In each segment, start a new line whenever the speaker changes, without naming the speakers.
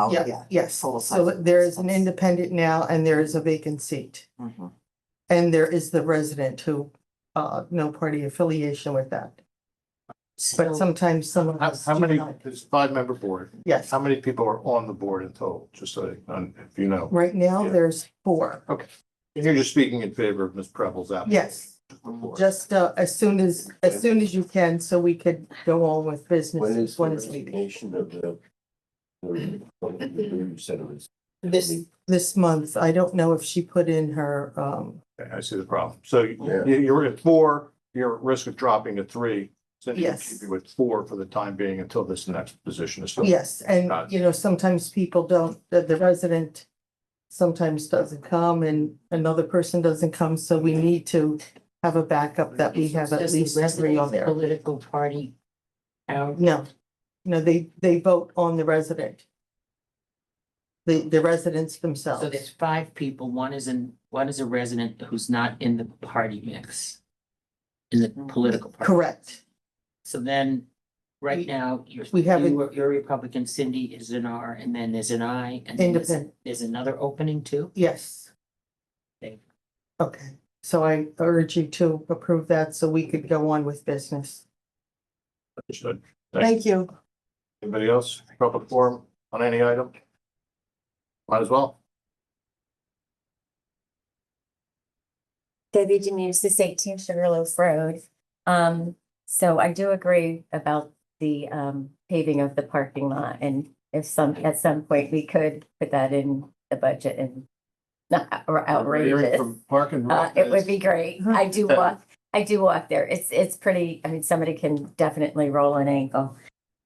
Oh,
Yeah,
yeah.
yes.
Total
So
size.
there is an independent now and there is a vacant seat.
Mhm.
And there is the resident who, uh, no party affiliation with that. But
So
sometimes some of
How,
us.
how
do
many,
not.
it's five member board,
Yes,
how many people are on the board in total, just so, you know, if you know?
right now there's four.
And you're just speaking in favor of Ms. Preble's application.
Yes, just, uh, as soon as, as soon as you can, so we could go on with
When
business,
is the
when it's meeting.
resignation of the? the- You said it was.
This, this month, I don't know if she put in her, um,
Okay, I see the problem. So you,
Yeah.
you're at four, you're at risk of dropping to three. So you
Yes.
should be with four for the time being until this next position is filled.
yes, and,
Got it.
you know, sometimes people don't, the, the resident sometimes doesn't come and another person doesn't come, so we need to have a backup that we have at
Does the
least three on
resident
there.
Political party. Our
No, no, they, they vote on the resident. The, the residents
So there's
themselves.
five people, one is in, one is a resident who's not in the party mix. In the political party.
Mm-hmm. Correct.
So then,
We-
right now, you're.
we have
you are- You're a Republican, Cindy is an R, and then there's an I, and then there's,
Independent.
there's another opening too?
Yes.
Thank you.
Okay, so I urge you to approve that so we could go on with business.
Understood.
Thank you.
Anybody else? Public forum on any item? Might as well.
Debbie Janus, this eighteen Sugarloaf Road. Um, so I do agree about the um paving of the parking lot and if some, at some point we could put that in the budget and not or
Hearing
outrageous.
from Park and
Uh,
Rec
it would
is-
be great. I do walk, I do walk there. It's, it's pretty, I mean, somebody can definitely roll an ankle.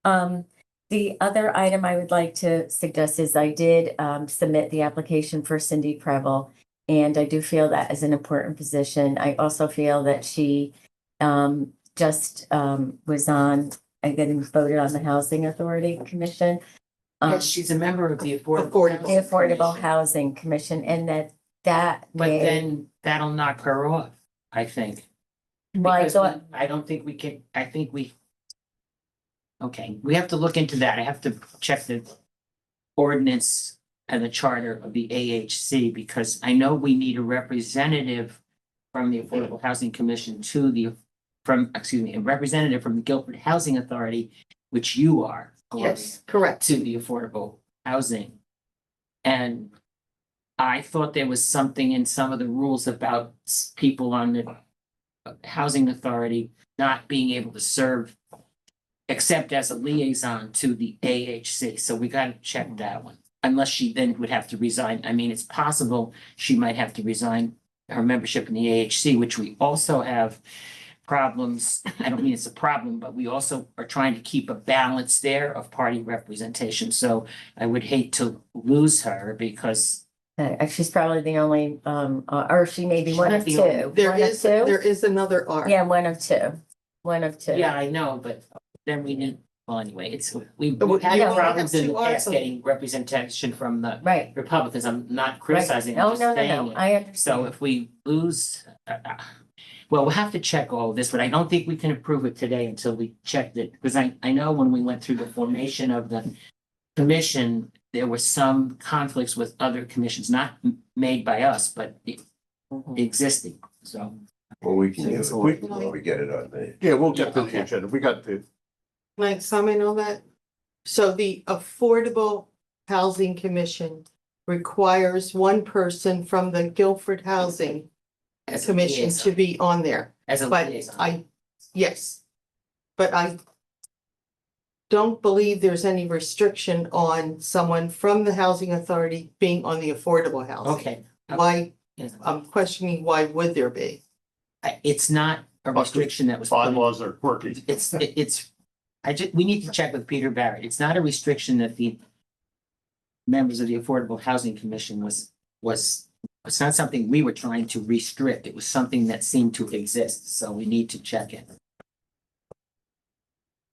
Um, the other item I would like to suggest is I did, um, submit the application for Cindy Preble. And I do feel that is an important position. I also feel that she, um, just, um, was on, and getting voted on the Housing Authority Commission. Um,
Yes, she's a member of the Affordable.
Affordable.
the Affordable
Housing Commission,
Housing Commission and that, that
But
may-
then that'll knock her off, I think.
well, I
because
thought-
we- I don't think we can, I think we. Okay, we have to look into that. I have to check the ordinance and the charter of the AHC because I know we need a representative from the Affordable Housing Commission to the, from, excuse me, a representative from the Guilford Housing Authority, which you are. Gloria,
correct.
To the Affordable Housing. And I thought there was something in some of the rules about s- people on the uh, housing authority not being able to serve except as a liaison to the AHC, so we gotta check that one. Unless she then would have to resign, I mean, it's possible she might have to resign her membership in the AHC, which we also have problems, I don't mean it's a problem, but we also are trying to keep a balance there of party representation, so I would hate to lose her because
Uh, she's probably the only, um, uh, or she may be
She's
one
not
of
the
two.
only-
There
One of
is,
two?
there is another R.
Yeah, one of two, one of two.
Yeah, I know, but then we need, well, anyway, it's, we've
But we-
had
you only
problems
have
in the
two arts
past
on-
getting representation from the
Right.
Republicans. I'm not
right.
criticizing, I'm
No,
just
no, no, no,
saying it.
I
So
understand.
if we lose, uh, uh, well, we'll have to check all this, but I don't think we can approve it today until we check it. Because I, I know when we went through the formation of the commission, there were some conflicts with other commissions, not m- made by us, but e-
Mm-hmm.
existing, so.
Well, we can do it
We-
when we get it on the.
Yeah, we'll get to the
Okay.
agenda. We got the,
Can I comment on that? So the Affordable Housing Commission requires one person from the Guilford Housing
as a
Commission to
liaison-
be on there.
As a
But
liaison.
I, yes. But I don't believe there's any restriction on someone from the Housing Authority being on the Affordable Housing.
Okay.
Why,
Yes.
I'm questioning why would there be?
I- It's not a restriction that was. put in.
bylaws are quirky.
It's, it- it's, I just, we need to check with Peter Barrett. It's not a restriction that the members of the Affordable Housing Commission was, was, it's not something we were trying to restrict. It was something that seemed to exist, so we need to check it.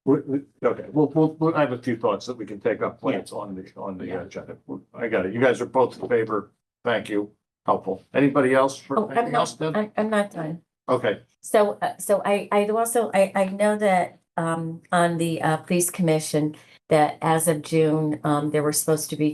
We, we, okay, well, we'll, we'll- I have a few thoughts that we can take up when it's on the, on the agenda. I got it. You guys are both in favor. Thank you. Helpful. Anybody else
Oh,
for
I'm
anything else,
not,
Deb?
I- I'm not done.
Okay,
So, uh, so I, I also, I, I know that, um, on the, uh, police commission, that as of June, um, there were supposed to be